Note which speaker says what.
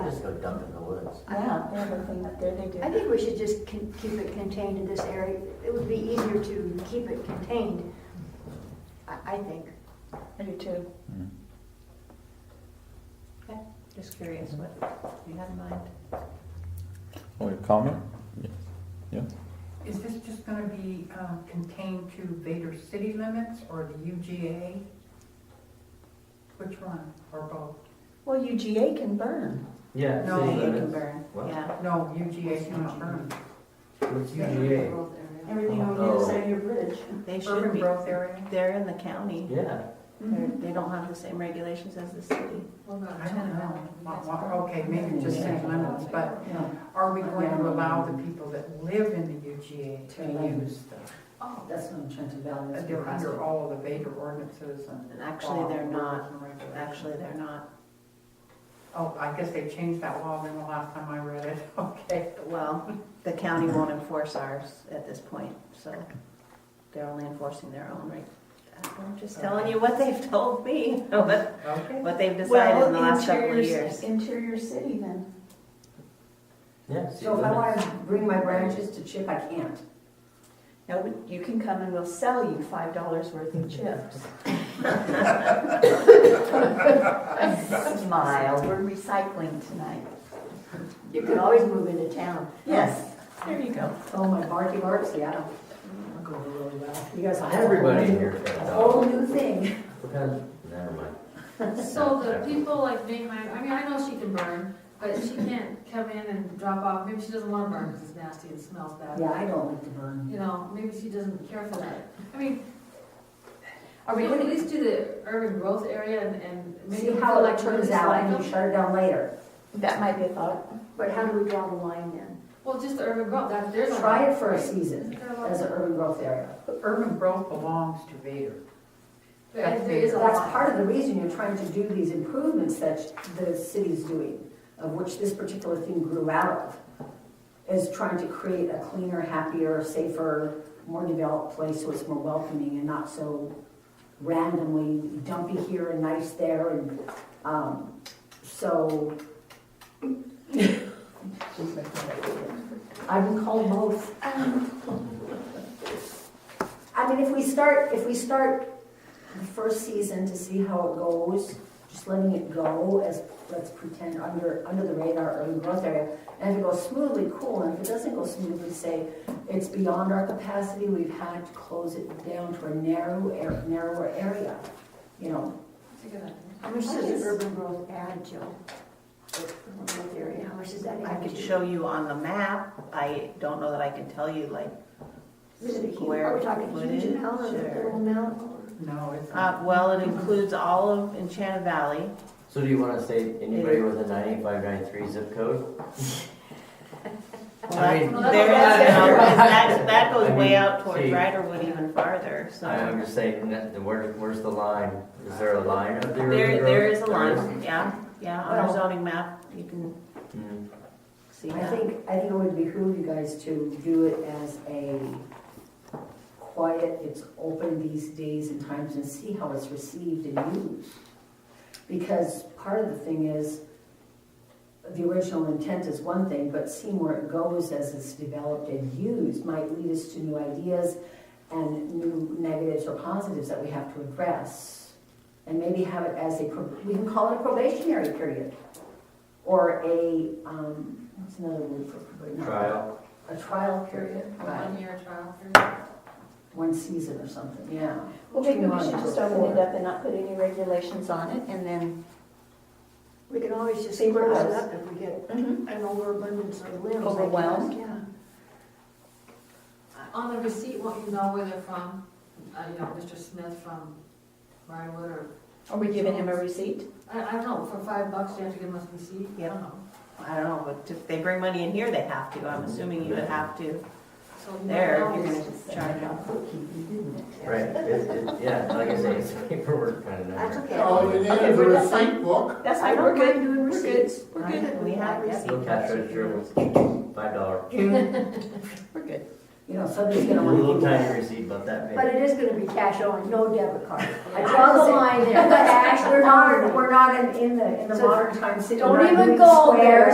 Speaker 1: just go dump it in the woods.
Speaker 2: Yeah, they have a thing up there, they do.
Speaker 3: I think we should just con- keep it contained in this area. It would be easier to keep it contained, I, I think.
Speaker 2: I do too.
Speaker 4: Just curious, what you had in mind?
Speaker 5: Oh, your comment?
Speaker 6: Is this just gonna be um, contained to Vader city limits or the UGA? Which one, or both?
Speaker 2: Well, UGA can burn.
Speaker 1: Yeah.
Speaker 6: No,
Speaker 1: city
Speaker 6: you
Speaker 4: It can
Speaker 1: limits.
Speaker 4: burn,
Speaker 1: What?
Speaker 4: yeah.
Speaker 6: No, UGA cannot burn.
Speaker 1: What's UGA?
Speaker 4: Rural area.
Speaker 2: Everything on the other side of your bridge.
Speaker 4: They should
Speaker 6: Urban
Speaker 4: be,
Speaker 6: growth area?
Speaker 4: they're in the county.
Speaker 1: Yeah,
Speaker 2: Mm-hmm.
Speaker 4: They're, they don't have the same regulations as the city.
Speaker 6: I don't know. Well, well, Okay, maybe just city limits, but are we going to allow the people that live in the UGA to use the,
Speaker 7: Oh, that's not Trenton Valley. that's
Speaker 6: they're
Speaker 7: across
Speaker 6: under all of the Vader ordinances and.
Speaker 4: And actually, they're
Speaker 6: laws
Speaker 4: not,
Speaker 6: and regulations.
Speaker 4: actually, they're not.
Speaker 6: Oh, I guess they changed that law then the last time I read it, okay.
Speaker 4: Well, the county won't enforce ours at this point, so they're only enforcing their own reg- I'm just telling you what they've told me, what,
Speaker 6: Okay.
Speaker 4: what they've decided
Speaker 2: Well,
Speaker 4: in the last couple of
Speaker 2: interior c-
Speaker 4: years.
Speaker 2: Interior city then.
Speaker 1: yeah,
Speaker 7: the-
Speaker 1: city
Speaker 7: So if I
Speaker 1: limits.
Speaker 7: want to bring my branches to chip, I can't.
Speaker 2: No, but you can come and we'll sell you five dollars worth of chips. Smile, we're recycling tonight.
Speaker 3: You could always move into town.
Speaker 2: Yes, there you go.
Speaker 7: Oh, my barky barks, yeah. I'm going really well. You guys. have a whole
Speaker 1: Everybody
Speaker 7: new-
Speaker 1: here.
Speaker 7: A whole new thing.
Speaker 1: Because, never mind.
Speaker 8: So the people like make my, I mean, I know she can burn, but she can't come in and drop off, maybe she doesn't wanna burn because it's nasty and smells bad.
Speaker 7: Yeah, I don't like to burn.
Speaker 8: You know, maybe she doesn't care for that. I mean,
Speaker 7: Are we
Speaker 8: we
Speaker 7: going
Speaker 8: at least do the urban growth area and, and
Speaker 7: to
Speaker 8: maybe.
Speaker 7: see how it
Speaker 8: like
Speaker 7: turns out and you shut it down later?
Speaker 2: That might be a thought.
Speaker 3: But how do we draw the line then?
Speaker 8: Well, just the urban growth, that, there's. a
Speaker 7: Try
Speaker 8: lot,
Speaker 7: it for a
Speaker 8: right?
Speaker 7: season
Speaker 8: There are a lot.
Speaker 7: as an urban growth area.
Speaker 6: Urban growth belongs to Vader.
Speaker 8: But There is a
Speaker 7: That's
Speaker 8: lot.
Speaker 7: part of the reason you're trying to do these improvements that the city's doing, of which this particular thing grew out of, is trying to create a cleaner, happier, safer, more developed place so it's more welcoming and not so randomly dumpy here and nice there and, um, so. I've been called both. I mean, if we start, if we start the first season to see how it goes, just letting it go as, let's pretend, under, under the radar urban growth area. And if it goes smoothly, cool, and if it doesn't go smoothly, say, it's beyond our capacity, we've had to close it down to a narrow, air- narrower area, you know.
Speaker 8: That's a good idea.
Speaker 3: How much does urban growth add, Jill? Urban growth area, how much does that
Speaker 4: I
Speaker 3: add
Speaker 4: could
Speaker 3: to?
Speaker 4: show you on the map, I don't know that I can tell you, like,
Speaker 3: Is it a huge,
Speaker 4: where
Speaker 3: are we talking
Speaker 4: footage
Speaker 3: huge amount or a
Speaker 4: or-
Speaker 3: little amount? or-
Speaker 6: No, it's.
Speaker 4: Uh, well, it includes all of Enchanted Valley.
Speaker 1: So do you wanna say anybody with a ninety-five, ninety-three zip code? I mean,
Speaker 8: Well,
Speaker 4: There is,
Speaker 8: that's-
Speaker 4: no- that, that goes
Speaker 1: I
Speaker 4: way
Speaker 1: mean,
Speaker 4: out towards
Speaker 1: see-
Speaker 4: Riderwood even farther,
Speaker 1: I'm
Speaker 4: so.
Speaker 1: just saying, that the- where, where's the line? Is there a line up there?
Speaker 4: There, there is a line, yeah, yeah, on our
Speaker 7: Well-
Speaker 4: zoning map, you can
Speaker 1: Mm.
Speaker 4: see
Speaker 7: I
Speaker 4: that.
Speaker 7: think, I think it would behoove you guys to do it as a quiet, it's open these days and times and see how it's received and used. Because part of the thing is, the original intent is one thing, but seeing where it goes as it's developed and used might lead us to new ideas and new negatives or positives that we have to address. And maybe have it as a, pro- we can call it a probationary period. Or a, um, what's another word for probationary?
Speaker 1: Trial.
Speaker 7: A trial period,
Speaker 8: A
Speaker 7: right,
Speaker 8: One-year trial period.
Speaker 7: one season or something, yeah.
Speaker 2: Well, maybe we
Speaker 7: Two
Speaker 2: should
Speaker 7: months
Speaker 2: just
Speaker 7: or
Speaker 2: open it
Speaker 7: four.
Speaker 2: up and not put any regulations on it and then.
Speaker 3: We can always just
Speaker 2: See where it
Speaker 3: close it
Speaker 2: goes.
Speaker 3: up if we get
Speaker 7: Mm-hmm.
Speaker 3: an overabundance of limbs. I guess.
Speaker 2: Overwhelmed?
Speaker 3: Yeah.
Speaker 8: On the receipt, won't you know where they're from? Uh, you know, Mr. Smith from Briarwood or,
Speaker 2: Are we giving him a receipt?
Speaker 8: I, I don't know, for five bucks, you have to give them a receipt? I
Speaker 4: Yep.
Speaker 8: don't know.
Speaker 4: I don't know, but if they bring money in here, they have to, I'm assuming you would have to,
Speaker 8: So you
Speaker 4: there,
Speaker 8: know,
Speaker 4: if you're
Speaker 8: it's-
Speaker 4: gonna charge them.
Speaker 1: Right, it, it, yeah, like I say, it's paperwork kind of number.
Speaker 3: That's okay.
Speaker 9: All you need
Speaker 2: Okay,
Speaker 9: is a
Speaker 2: we're just fine.
Speaker 9: receipt book.
Speaker 2: That's
Speaker 3: I
Speaker 2: fine,
Speaker 3: don't
Speaker 2: we're
Speaker 3: mind
Speaker 2: good.
Speaker 3: doing
Speaker 2: We're good.
Speaker 3: receipts.
Speaker 2: We're
Speaker 4: I-
Speaker 2: good.
Speaker 4: We have receipts.
Speaker 1: Look at treasurer, five dollar.
Speaker 2: We're good.
Speaker 7: You know, somebody's
Speaker 1: A
Speaker 7: gonna
Speaker 1: little
Speaker 7: want
Speaker 1: tiny
Speaker 7: to.
Speaker 1: receipt about that big.
Speaker 3: But it is gonna be cash only, no debit card.
Speaker 7: I draw the line there, but Ash, we're not, we're not in, in the, in the
Speaker 3: So
Speaker 7: modern time city.
Speaker 3: don't
Speaker 7: we're not
Speaker 3: even
Speaker 7: doing
Speaker 3: go
Speaker 7: squares.
Speaker 3: there.